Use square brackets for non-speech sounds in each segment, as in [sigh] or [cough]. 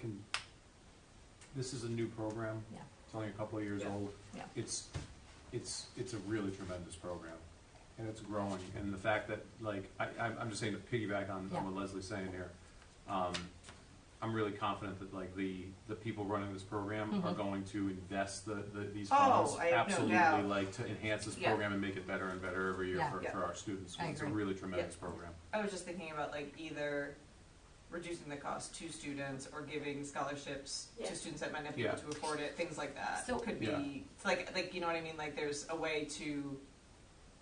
can, this is a new program. Yeah. It's only a couple of years Yeah. old. Yeah. It's, it's, it's a really tremendous program, and it's growing, and the fact that, like, I, I'm, I'm just saying to piggyback on Yeah. on what Leslie's saying here. Um, I'm really confident that, like, the, the people running this program are Mhm. going to invest the, the, these Mm-hmm. Oh, funds. I have no doubt. Absolutely, like, to enhance this Yeah. program and make it better and better every year Yeah. for, Yeah. for our students. I It's a agree. really tremendous program. I was just thinking about like either reducing the cost to students or giving scholarships Yeah. to students that might not be able Yeah. to afford it, things like that. So- Could be, Yeah. it's like, like, you know what I mean, like there's a way to,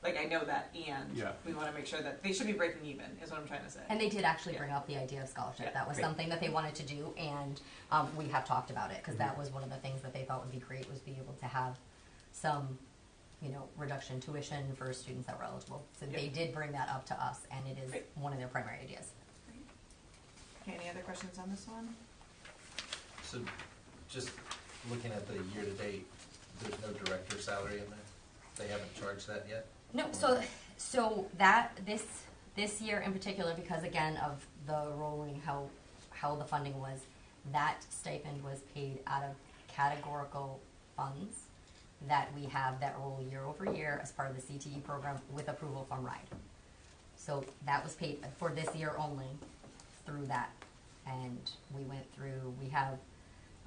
like I know that and Yeah. we wanna make sure that they should be breaking even, is what I'm trying to say. And they did actually bring up the idea of Yeah, scholarship. That was great. something that they wanted to do, and um, we have talked about it because that Mm-hmm. was one of the things that they thought would be great was be able to have some, you know, reduction in tuition for students that were eligible. So Yeah. they did bring that up to us, and it is Great. one of their primary ideas. Okay, any other questions on this one? So, just looking at the year-to-date, there's no director salary in there? They haven't charged that yet? No, so so that this this year in particular, because again of the rolling how how the funding was, that stipend was paid out of categorical funds that we have that roll year over year as part of the CTE program with approval from RIDE. So that was paid for this year only through that, and we went through. We have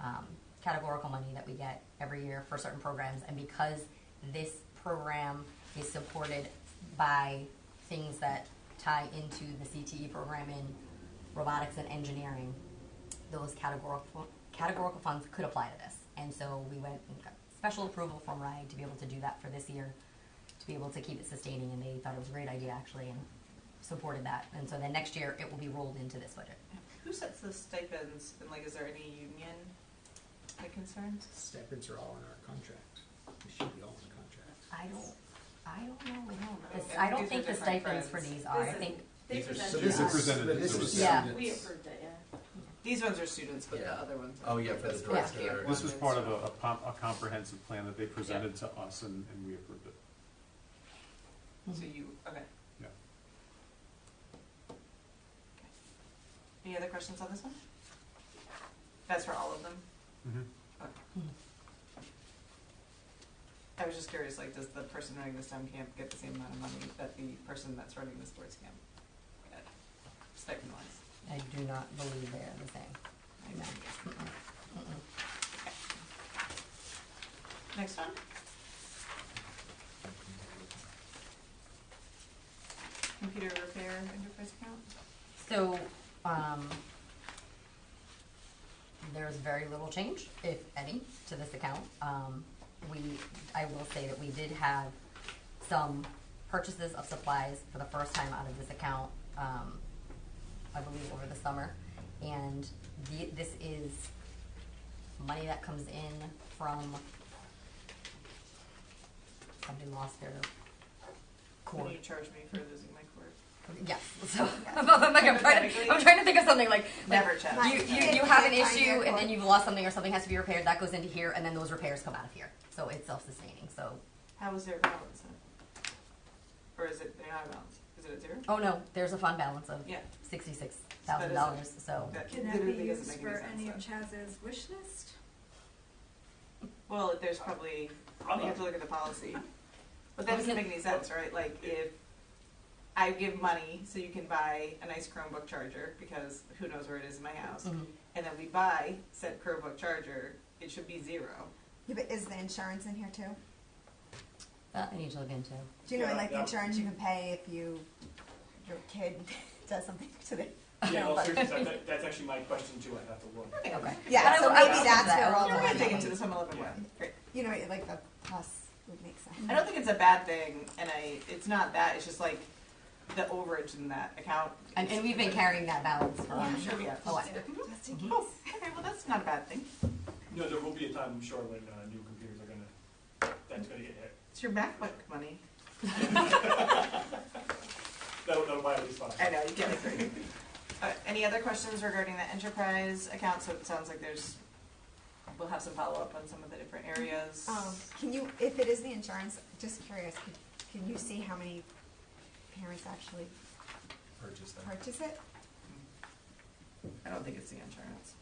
um, categorical money that we get every year for certain programs. And because this program is supported by things that tie into the CTE program in robotics and engineering, those categorical, categorical funds could apply to this. And so we went and got special approval from RIDE to be able to do that for this year, to be able to keep it sustaining. And they thought it was a great idea, actually, and supported that. And so then next year, it will be rolled into this budget. Who sets the stipends and like is there any union like concerns? Stipends are all in our contract. They should be all in the contract. I don't, I don't know. know. This- I don't These think are the different stipends for friends. these are, I This is- think, They These are presented These are us. presented But this to is us. Yeah. students. We approved it, yeah. These ones are students, but the Yeah. other ones. Oh, yeah, for the That's Yeah. director. This was part of a, a com- a comprehensive plan that they presented to us and, and we approved it. So you, okay. Yeah. Any other questions on this one? That's for all of them? Mm-hmm. Okay. Mhm. I was just curious, like, does the person running the STEM camp get the same amount of money that the person that's running the sports camp? got? Stipend wise. I do not believe they're the same. No. Mm-mm. Mm-mm. Next one? Computer repair enterprise account? So, um, there's very little change, if any, to this account. Um, we, I will say that we did have some purchases of supplies for the first time out of this account, um, I believe over the summer. And the, this is money that comes in from, somebody lost their cord. Can you charge me for losing my cord? Yes. So [laughs] I'm, like, I'm, trying to, I'm trying to think of something like Never check. You, you, you have an issue and then you've lost something or something has to be repaired. That goes into here and then those repairs come out of here. So it's self-sustaining. So How is there a balance then? Or is it, they're not a balance? Is it at zero? oh no, there's a fund balance of Yeah. sixty-six thousand dollars. So That Can that be literally doesn't used make for sense, any of though. Chaz's wish list? Well, there's probably, you have to look at the policy. But that doesn't make any sense, right? Like if I give money so you can buy a nice Chromebook charger because who knows where it is in my house, mhm. and then we buy said Chromebook charger, it should be zero. Yeah, but is the insurance in here too? that I need to look into. Do you know, Yeah, like the yeah. insurance you can pay if you, your kid [laughs] does something [laughs] to the. [laughs] Yeah, well, seriously, that, that- that's actually my question too, I have to look. Okay. Yeah, But so I will- I maybe will that's look into where all that. the We're gonna dig money- into this on a little bit more. Yeah. Great. You know, like the plus would make sense. Mm-hmm. I don't think it's a bad thing, and I, it's not that, it's just like the overage in that account. And, and we've been carrying that balance for Yeah, Sure, yeah. a while. Just in Oh, case. okay, well, that's not a bad thing. No, there will be a time, I'm sure, when, uh, new computers are gonna, that's gonna get hit. It's your MacBook money. That'll, that'll buy at least five. I know, you get it, great. Uh, any other questions regarding the enterprise account, so it sounds like there's, we'll have some follow-up on some of the different areas. Um, can you, if it is the insurance, just curious, could- can you see how many parents actually Purchase them. purchase it? I don't think it's the insurance.